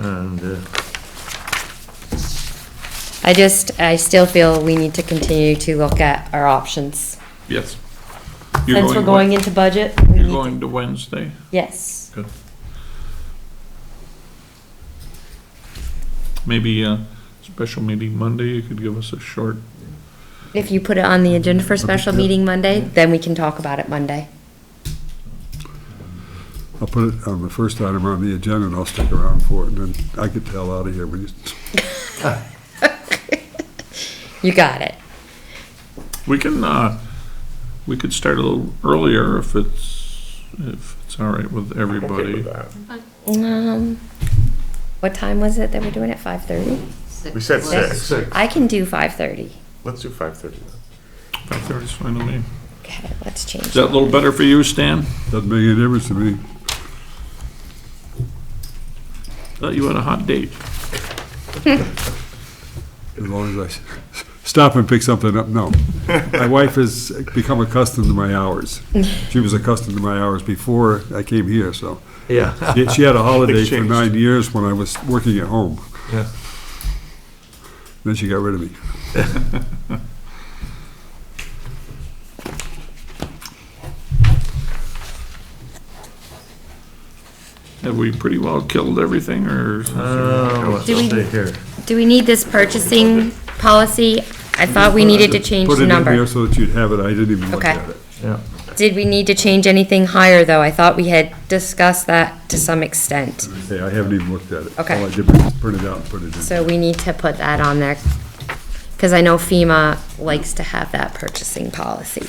And, uh, I just, I still feel we need to continue to look at our options. Yes. You're Since we're going into budget, we You're need- going to Wednesday? yes. Good. Maybe a special meeting Monday, you could give us a short, If you put it on the agenda for special meeting Monday, then we can talk about it Monday. I'll put it on the first item on the agenda and I'll stick around for it, and then I get the hell out of here when you, You got it. we can, uh, we could start a little earlier if it's, if it's all right with everybody. Um, what time was it that we're doing it? Five thirty? Six. We said Six. six. I can do five thirty. Let's do five thirty then. Five thirty's fine with me. Okay, let's change. Is that a little better for you, Stan? doesn't make any difference to me. Thought you had a hot date. As long as I stop and pick something up, no. My wife has become accustomed to my hours. She was accustomed to my hours before I came here, so. yeah, She she had a holiday for changed. nine years when I was working at home. Yeah. Then she got rid of me. Have we pretty well killed everything, or? is Um, there- let's Do we- stay here. Do we need this purchasing policy? I thought we needed to change the Put it in here number. so that you'd have it, I didn't even look Okay. at it. Yeah, Did we need to change anything higher, though? I thought we had discussed that to some extent. Hey, I haven't even looked at it. Okay. All I did was print it out and put it in. So we need to put that on there, because I know FEMA likes to have that purchasing policy.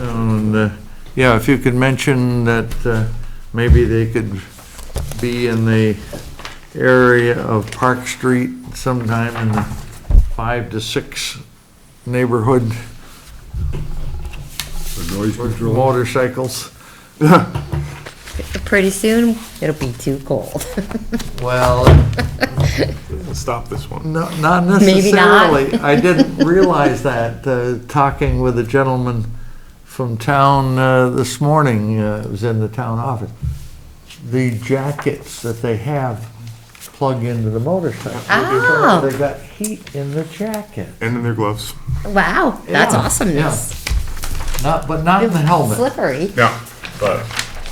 and, uh, yeah, if you could mention that, uh, maybe they could be in the area of Park Street sometime in the five to six neighborhood For noise with control. motorcycles. Pretty soon, it'll be too cold. Well, We'll stop this one. No- Not Maybe not. necessarily. I didn't realize that, uh, talking with a gentleman from town uh, this morning, uh, it was in the town office. The jackets that they have plug into the motorcycle. Oh. They got heat in the jacket, And in their gloves. Wow, that's Yeah, awesomeness. not, but not in the helmet. Slippery. Yeah, but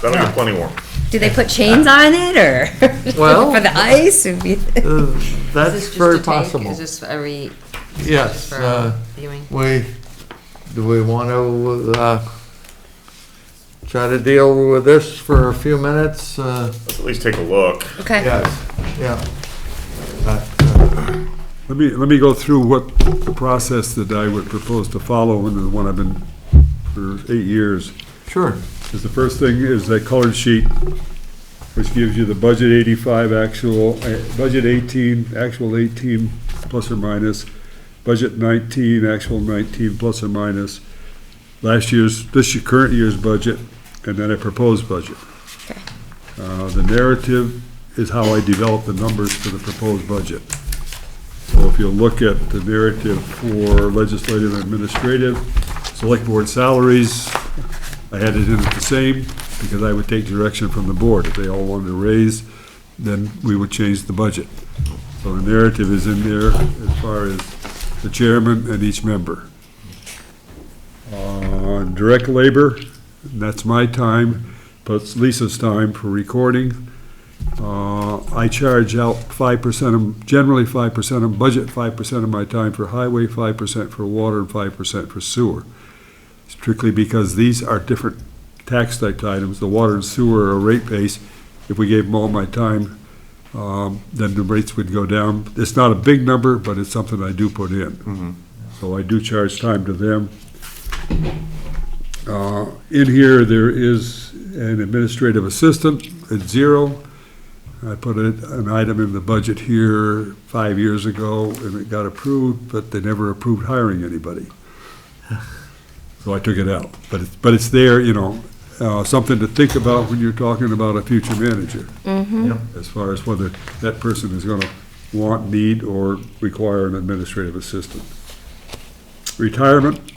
that'll get plenty warm. Do they put chains on it, or? Well- For the ice? It'd be- Uh, Is That's this just to very take- possible. Is this, are we, just Yes. for uh, our viewing? We, do we want to, uh, try to deal with this for a few minutes? Uh, Let's at least take a look. Okay. Yes, yeah. But, uh, Let me, let me go through what the process that I would propose to follow, and the one I've been for eight years, Sure, is the first thing is that colored sheet, which gives you the budget eighty-five actual, uh, budget eighteen, actual eighteen plus or minus, budget nineteen, actual nineteen plus or minus, last year's, this year, current year's budget, and then a proposed budget. Okay. Uh, the narrative is how I develop the numbers for the proposed budget. So if you look at the narrative for legislative and administrative, select board salaries, I had it in at the same, because I would take direction from the board. If they all wanted to raise, then we would change the budget. So the narrative is in there as far as the chairman and each member. Uh, direct labor, that's my time, plus Lisa's time for recording. Uh, I charge out five percent of, generally five percent of budget, five percent of my time for highway, five percent for water, and five percent for sewer strictly because these are different tax type items. The water and sewer are rate base. If we gave them all my time, um, then the rates would go down. It's not a big number, but it's something I do put in. So I do charge time to them. Uh, In here, there is an administrative assistant at zero. I put it- an item in the budget here five years ago, and it got approved, but they never approved hiring anybody. So I took it out. But it's, but it's there, you know, uh, something to think about when you're talking about a future manager. As far as whether that person is gonna want, need, or require an administrative assistant. Retirement,